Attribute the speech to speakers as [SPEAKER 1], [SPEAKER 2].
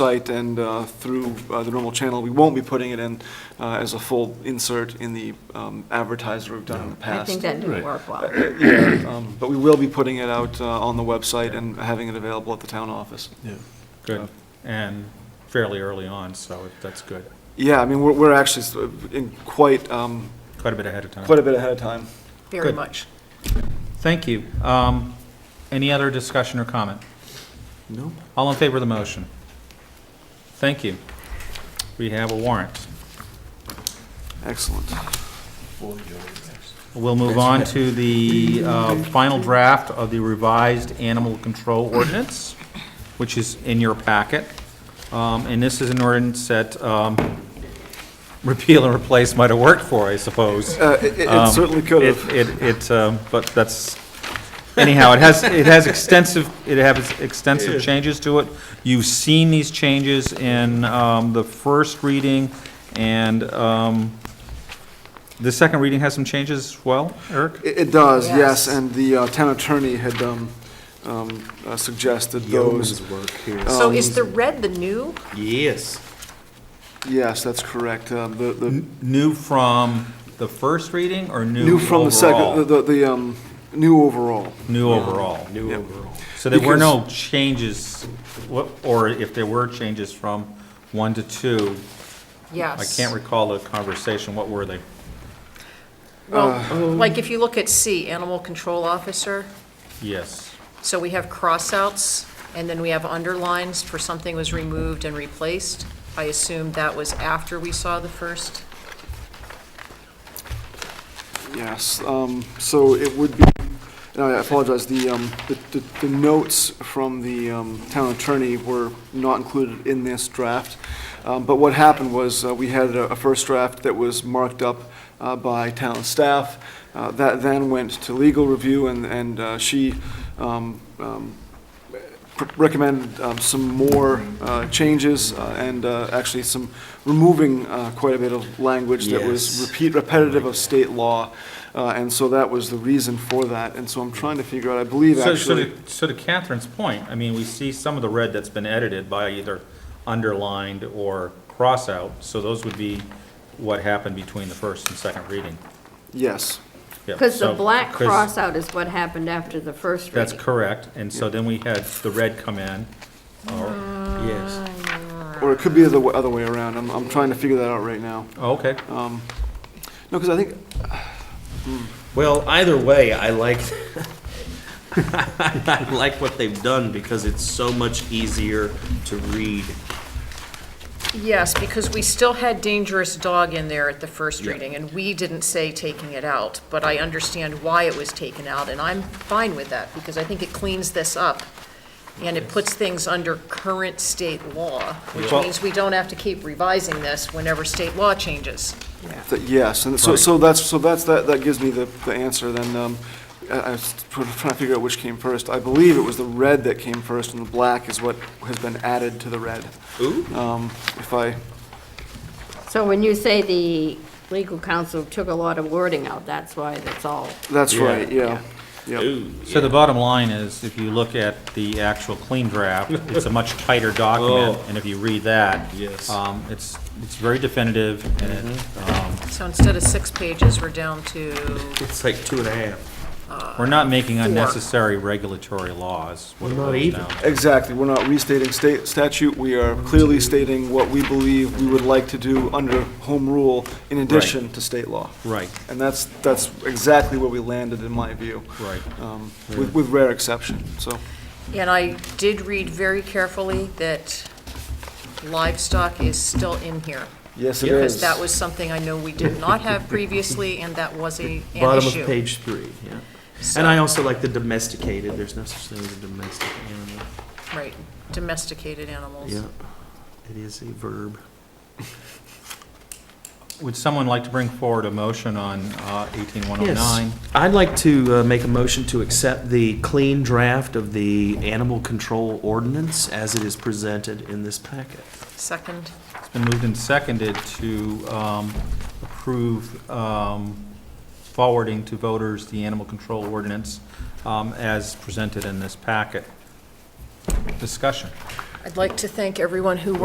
[SPEAKER 1] site and uh, through uh, the normal channel. We won't be putting it in uh, as a full insert in the um, advertiser we've done in the
[SPEAKER 2] I
[SPEAKER 1] past.
[SPEAKER 2] think that didn't
[SPEAKER 3] Right.
[SPEAKER 2] work well.
[SPEAKER 1] Yeah, um, But we will be putting it out uh, on the website and having it available at the town office.
[SPEAKER 3] Yeah.
[SPEAKER 4] Good, Uh, and fairly early on, so that's good.
[SPEAKER 1] Yeah, I mean, we're, we're actually s- uh, in quite, um,
[SPEAKER 4] Quite a bit ahead of time.
[SPEAKER 1] quite a bit ahead of time.
[SPEAKER 2] Very
[SPEAKER 4] Good.
[SPEAKER 2] much.
[SPEAKER 4] Thank you. Um, Any other discussion or comment?
[SPEAKER 1] No.
[SPEAKER 4] All in favor of the motion? Thank you. We have a warrant.
[SPEAKER 1] Excellent.
[SPEAKER 4] We'll move on to the uh, final draft of the revised animal control ordinance, which is in your packet. Um, And this is an ordinance that um, repeal and replace might have worked for, I suppose.
[SPEAKER 1] Uh, it- it- It
[SPEAKER 4] Um,
[SPEAKER 1] certainly could
[SPEAKER 4] it-
[SPEAKER 1] have.
[SPEAKER 4] It, it, um, but that's, anyhow, it has, it has extensive, it has extensive changes to it. You've seen these changes in um, the first reading, and um, the second reading has some changes as well, Eric?
[SPEAKER 1] It it does, yes,
[SPEAKER 2] Yes.
[SPEAKER 1] and the uh, town attorney had um, um, uh, suggested those. Um,
[SPEAKER 2] So is
[SPEAKER 4] Um,
[SPEAKER 2] the red the new?
[SPEAKER 3] Yes.
[SPEAKER 1] Yes, that's correct. Um, The, the
[SPEAKER 4] New from the first reading, or new
[SPEAKER 1] new from the second, the-
[SPEAKER 4] overall?
[SPEAKER 1] the, the um, new overall.
[SPEAKER 4] New overall.
[SPEAKER 3] New overall.
[SPEAKER 4] So there were no changes, wha- or if there were changes from one to two, I
[SPEAKER 2] Yes.
[SPEAKER 4] can't recall the conversation, what were they? Uh,
[SPEAKER 2] Well, like if you look at C, animal control officer,
[SPEAKER 4] Yes.
[SPEAKER 2] so we have cross-outs, and then we have underlines for something was removed and replaced. I assume that was after we saw the first.
[SPEAKER 1] Yes, um, so it would be, and I apologize, the, um, the- the- the notes from the um, town attorney were not included in this draft. Um, But what happened was, uh, we had a a first draft that was marked up uh, by town staff. Uh, That then went to legal review, and, and uh, she um, um, pr- recommended um, some more uh, changes, uh, and uh, actually some, removing uh, quite a bit of language that was
[SPEAKER 3] Yes.
[SPEAKER 1] repeat, repetitive of state law, uh, and so that was the reason for that, and so I'm trying to figure out, I believe
[SPEAKER 4] So, so
[SPEAKER 1] actually,
[SPEAKER 4] to, so to Catherine's point, I mean, we see some of the red that's been edited by either underlined or cross out, so those would be what happened between the first and second reading.
[SPEAKER 1] yes,
[SPEAKER 4] Yeah,
[SPEAKER 5] Because the
[SPEAKER 4] so-
[SPEAKER 5] black
[SPEAKER 4] 'cause
[SPEAKER 5] crossout is what happened after the first reading.
[SPEAKER 4] That's correct, and so then we had the red come in, Oh, or,
[SPEAKER 3] Yes.
[SPEAKER 1] or it could be the wa- other way around, I'm, I'm trying to figure that out right now.
[SPEAKER 4] oh, okay,
[SPEAKER 1] No, because I think,
[SPEAKER 3] Well, either way, I like, I like what they've done because it's so much easier to read.
[SPEAKER 2] Yes, because we still had dangerous dog in there at the first
[SPEAKER 3] Yeah.
[SPEAKER 2] reading, and we didn't say taking it out, but I understand why it was taken out, and I'm fine with that, because I think it cleans this up, and it puts things under current state law, which
[SPEAKER 4] Well-
[SPEAKER 2] means we don't have to keep revising this whenever state law changes.
[SPEAKER 1] that yes, and so,
[SPEAKER 4] Right.
[SPEAKER 1] so that's, so that's, that, that gives me the, the answer then, um, I, I was tr- trying to figure out which came first. I believe it was the red that came first, and the black is what has been added to the red,
[SPEAKER 3] Ooh.
[SPEAKER 1] um, if I,
[SPEAKER 5] So when you say the legal counsel took a lot of wording out, that's why that's all.
[SPEAKER 1] that's
[SPEAKER 3] Yeah.
[SPEAKER 1] right, yeah, yeah.
[SPEAKER 3] Ooh.
[SPEAKER 4] so the bottom line is, if you look at the actual clean draft, it's a much tighter document,
[SPEAKER 3] Oh.
[SPEAKER 4] and if you read that.
[SPEAKER 3] Yes.
[SPEAKER 4] Um, it's, it's very definitive, and it, um,
[SPEAKER 2] So instead of six pages, we're down to,
[SPEAKER 3] It's like two and a half.
[SPEAKER 4] We're not making unnecessary regulatory laws. what it
[SPEAKER 3] Not
[SPEAKER 4] boils
[SPEAKER 3] even.
[SPEAKER 4] down to.
[SPEAKER 1] Exactly, we're not restating state statute, we are clearly stating what we believe we would like to do under home rule in addition to state law.
[SPEAKER 4] Right,
[SPEAKER 1] And that's, that's exactly where we landed, in my view,
[SPEAKER 4] right.
[SPEAKER 1] um, with with rare exception, so.
[SPEAKER 2] and I did read very carefully that livestock is still in here.
[SPEAKER 1] Yes, it
[SPEAKER 2] Because
[SPEAKER 1] is.
[SPEAKER 2] that was something I know we did not have previously, and that was a, an issue.
[SPEAKER 3] Bottom of page three, yeah. And I
[SPEAKER 2] So-
[SPEAKER 3] also like the domesticated, there's no such thing as a domestic animal.
[SPEAKER 2] Right, domesticated animals.
[SPEAKER 3] Yeah, it is a verb.
[SPEAKER 4] Would someone like to bring forward a motion on uh,
[SPEAKER 3] Oh,
[SPEAKER 4] 18109?
[SPEAKER 3] Yes. I'd like to uh, make a motion to accept the clean draft of the animal control ordinance as it is presented in this packet.
[SPEAKER 2] Second,
[SPEAKER 4] It's been moved and seconded to um, approve um, forwarding to voters the animal control ordinance um, as presented in this packet. Discussion.
[SPEAKER 2] I'd like to thank everyone who